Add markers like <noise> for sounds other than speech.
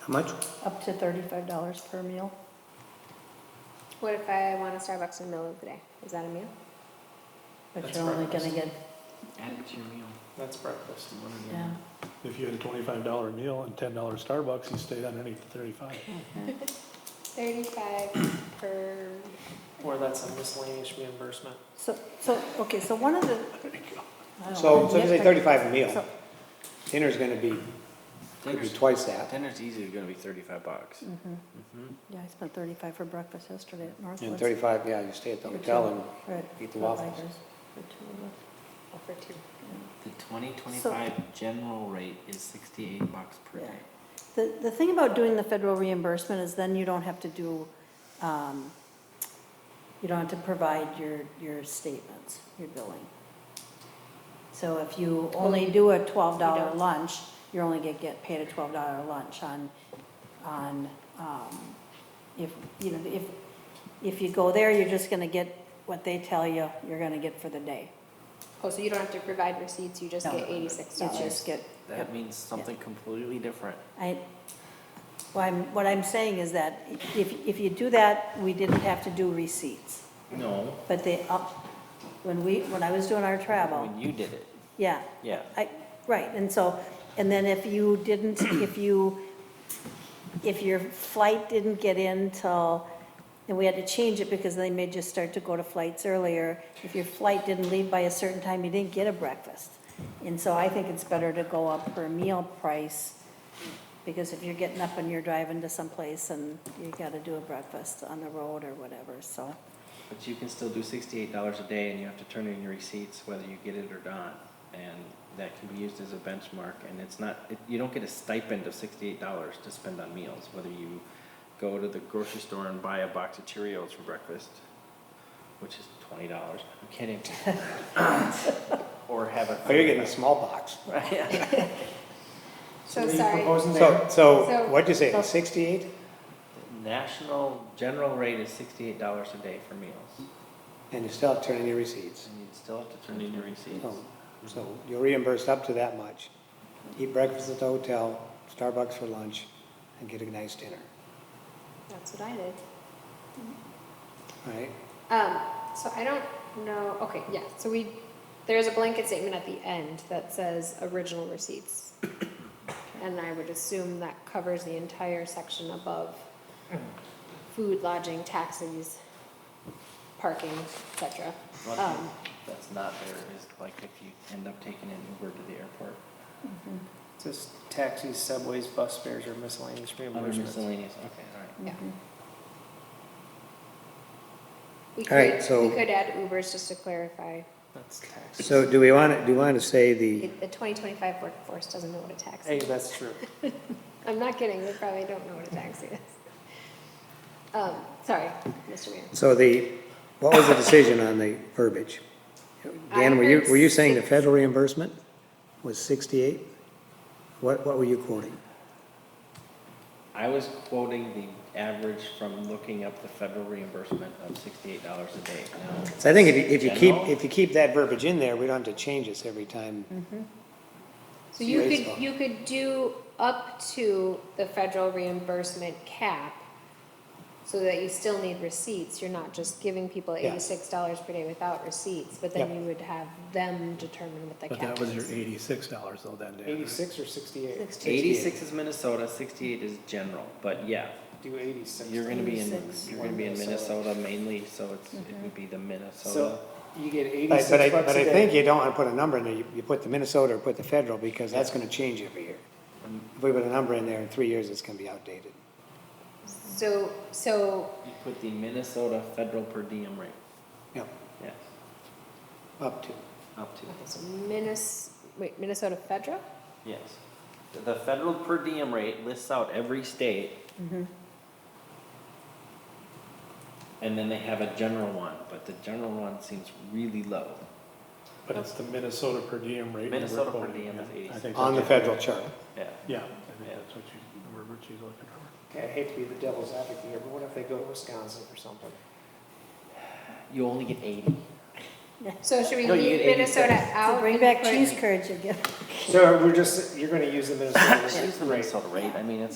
How much? up to thirty-five dollars per meal. What if I want a Starbucks in the middle of the day? Is that a meal? But That's you're only gonna breakfast. get, Add to your meal. That's breakfast. One of the- yeah, If you had a twenty-five dollar meal and ten dollar Starbucks, you stayed underneath the thirty-five. Thirty-five per, Or that's a miscellaneous reimbursement. so, so, okay, so one of the. I don't So, know, so if you say nitpick- thirty-five a meal, so- dinner's gonna be, could be Dinner's, twice that. dinner's easy, gonna be thirty-five bucks. Mhm. Mm-hmm. Yeah, I spent thirty-five for breakfast yesterday at Northwoods. And thirty-five, yeah, you stay at the for two- hotel and for- eat for the waffles. Rikers, for two of us. oh, for two. The twenty twenty-five general rate is sixty-eight bucks per Yeah. day. The, the thing about doing the federal reimbursement is then you don't have to do, um, you don't have to provide your, your statements, your billing. So if you only do a twelve You dollar don't. lunch, you're only gonna get paid a twelve dollar lunch on, on, um, if, you know, if, if you go there, you're just gonna get what they tell you you're gonna get for the day. Oh, so you don't have to provide receipts, you just No. get eighty-six You dollars? just get. That means something completely different. I, well, I'm, what I'm saying is that if, if you do that, we didn't have to do receipts. No. But they up, when we, when I was doing our travel, When you did it, yeah, yeah. I, right, and so, and then if you didn't, if you, if your flight didn't get in till, and we had to change it because they made you start to go to flights earlier, if your flight didn't leave by a certain time, you didn't get a breakfast. And so I think it's better to go up per meal price, because if you're getting up and you're driving to someplace and you gotta do a breakfast on the road or whatever, so. But you can still do sixty-eight dollars a day and you have to turn in your receipts whether you get it or not. And that can be used as a benchmark and it's not, it- you don't get a stipend of sixty-eight dollars to spend on meals, whether you go to the grocery store and buy a box of Cheerios for breakfast, which is twenty dollars, I'm kidding. <coughs> Or have a. Oh, you're getting a small box. <laughs> So sorry, Proposing So, there, so So- what'd you say, sixty-eight? National general rate is sixty-eight dollars a day for meals And you still have to turn in your receipts. and you'd still have to turn in your receipts. So- Oh. So you're reimbursed up to that much. Eat breakfast at the hotel, Starbucks for lunch, and get a nice dinner, that's what I did. all right? Um, so I don't know, okay, yeah, so we, there's a blanket statement at the end that says original receipts. And I would assume that covers the entire section above food, lodging, taxis, parking, et cetera. One Um, thing that's not there is like if you end up taking an Uber to the airport, just taxis, subways, bus fares, or miscellaneous other reimbursements. miscellaneous, okay, all right. Yeah. We All right, could, so- we could add Ubers just to clarify. That's taxes. So do we want to, do you want to say the, The twenty twenty-five workforce doesn't know what a tax Hey, is. that's true. I'm not kidding, they probably don't know what a taxi is. Um, sorry, Mr. Mayor. so the, what was the decision on the verbiage? Dan, were you, were you saying the federal reimbursement was sixty-eight? What, what were you quoting? I was quoting the average from looking up the federal reimbursement of sixty-eight dollars a day. Now, So I think if you, if you keep, General? if you keep that verbiage in there, we don't have to change this every time. So you Raise could, them. you could do up to the federal reimbursement cap so that you still need receipts. You're not just giving people Yeah. eighty-six dollars per day without receipts, but then Yep. you would have them determine what the But cap that was your is. eighty-six dollars though that day. Eighty-six or sixty-eight? Eighty-six is Minnesota, sixty-eight is general, but yeah, Do eighty-six. you're gonna be in, 86. you're gonna be in Minnesota. Minnesota mainly, so it's, it would be the Minnesota. So you get But eighty-six but I, bucks but a I day. think you don't want to put a number in there, you, you put the Minnesota or put the federal, because that's gonna change every year. If we put a number in there in three years, it's gonna be outdated. So, so You put the Minnesota federal per diem rate, Yep, yes, up to. up to, Okay, so Minnes, wait, Minnesota Federal? yes. The federal per diem rate lists out every state. And then they have a general one, but the general one seems really low. But it's the Minnesota per diem rate. that we're Minnesota per quoting, diem yeah. is 86. I think On the that's- federal chart. Yeah. Yeah, I think Yeah. that's what you, the verbiage she's looking for. Okay, I hate to be the devil's advocate here, but what if they go to Wisconsin or something? You only get eighty. So should we No, you leave get 86. Minnesota So out? bring and back put- cheese curds again. So we're just, you're gonna <laughs> use the Minnesota. It's the Minnesota rate, I mean, it's